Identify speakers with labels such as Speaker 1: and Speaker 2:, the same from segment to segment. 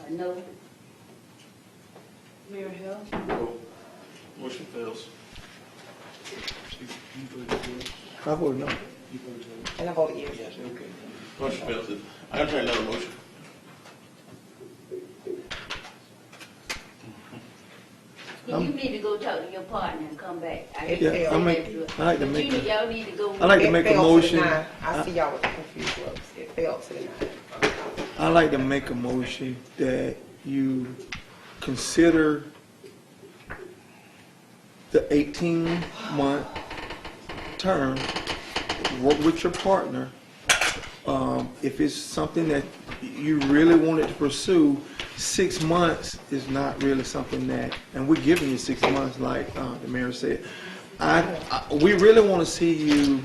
Speaker 1: Uh, No.
Speaker 2: Mayor Hill?
Speaker 3: Motion fails.
Speaker 4: I voted no.
Speaker 2: And I vote yes.
Speaker 3: Motion fails. I gotta try another motion.
Speaker 1: You need to go talk to your partner and come back. I
Speaker 2: It
Speaker 1: didn't
Speaker 2: failed.
Speaker 1: say
Speaker 2: I
Speaker 4: make-
Speaker 1: that.
Speaker 4: Um, I like to
Speaker 1: But
Speaker 4: make
Speaker 1: you need-
Speaker 4: a-
Speaker 1: Y'all need to go.
Speaker 4: I like to
Speaker 2: It
Speaker 4: make a
Speaker 2: fell to the
Speaker 4: motion.
Speaker 2: nine. I
Speaker 4: I-
Speaker 2: see y'all with the confused looks. It fell to the nine.
Speaker 4: I'd like to make a motion that you consider the eighteen month term, work with your partner. Um, if it's something that you really wanted to pursue, six months is not really something that, and we're giving you six months, like, uh, the mayor said. I, I, we really wanna see you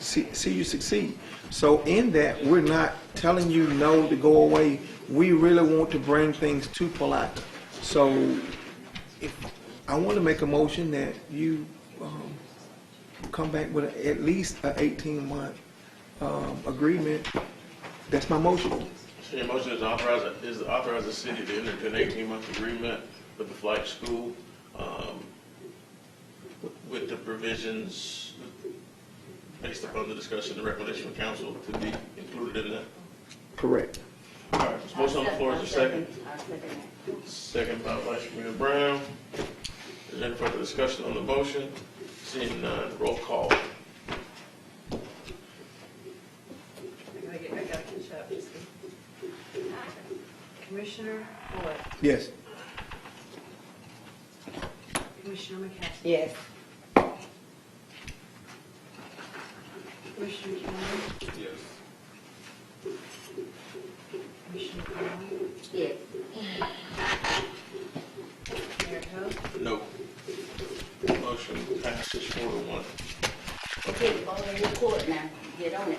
Speaker 4: see, see you succeed. So in that, we're not telling you no to go away. We really want to bring things to Palaca. So if, I want to make a motion that you, um, come back with at least a eighteen-month, um, agreement. That's my motion.
Speaker 3: So your motion is authorize, is to authorize the city to enter into an eighteen-month agreement with the flight school, um, with the provisions based upon the discussion and recommendation of council to be included in that.
Speaker 4: Correct.
Speaker 3: All right, there's a motion on the floor, is there a second?
Speaker 1: I'll second that.
Speaker 3: Second by Vice Mayor Brown. Is there any further discussion on the motion? Seeing none, roll call.
Speaker 2: I gotta get, I gotta catch up. Commissioner Boyd?
Speaker 4: Yes.
Speaker 2: Commissioner McCaskey? Yes. Commissioner Cameron?
Speaker 3: Yes.
Speaker 2: Commissioner Conley?
Speaker 1: Yes.
Speaker 2: Mayor Hill?
Speaker 3: No. Motion passes four to one.
Speaker 1: Okay, go ahead and record now. Get on it.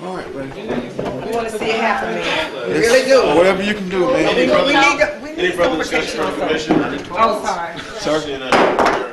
Speaker 4: All right, buddy.
Speaker 2: I wanna see it happen, man. Really
Speaker 4: Yes,
Speaker 2: do.
Speaker 4: Whatever you can do,
Speaker 2: We
Speaker 4: man.
Speaker 2: need, we need, we
Speaker 3: Any
Speaker 2: need some
Speaker 3: further discussion
Speaker 2: protection
Speaker 3: from
Speaker 2: on
Speaker 3: the
Speaker 2: something.
Speaker 3: commission?
Speaker 2: Oh, sorry.
Speaker 3: Seeing none,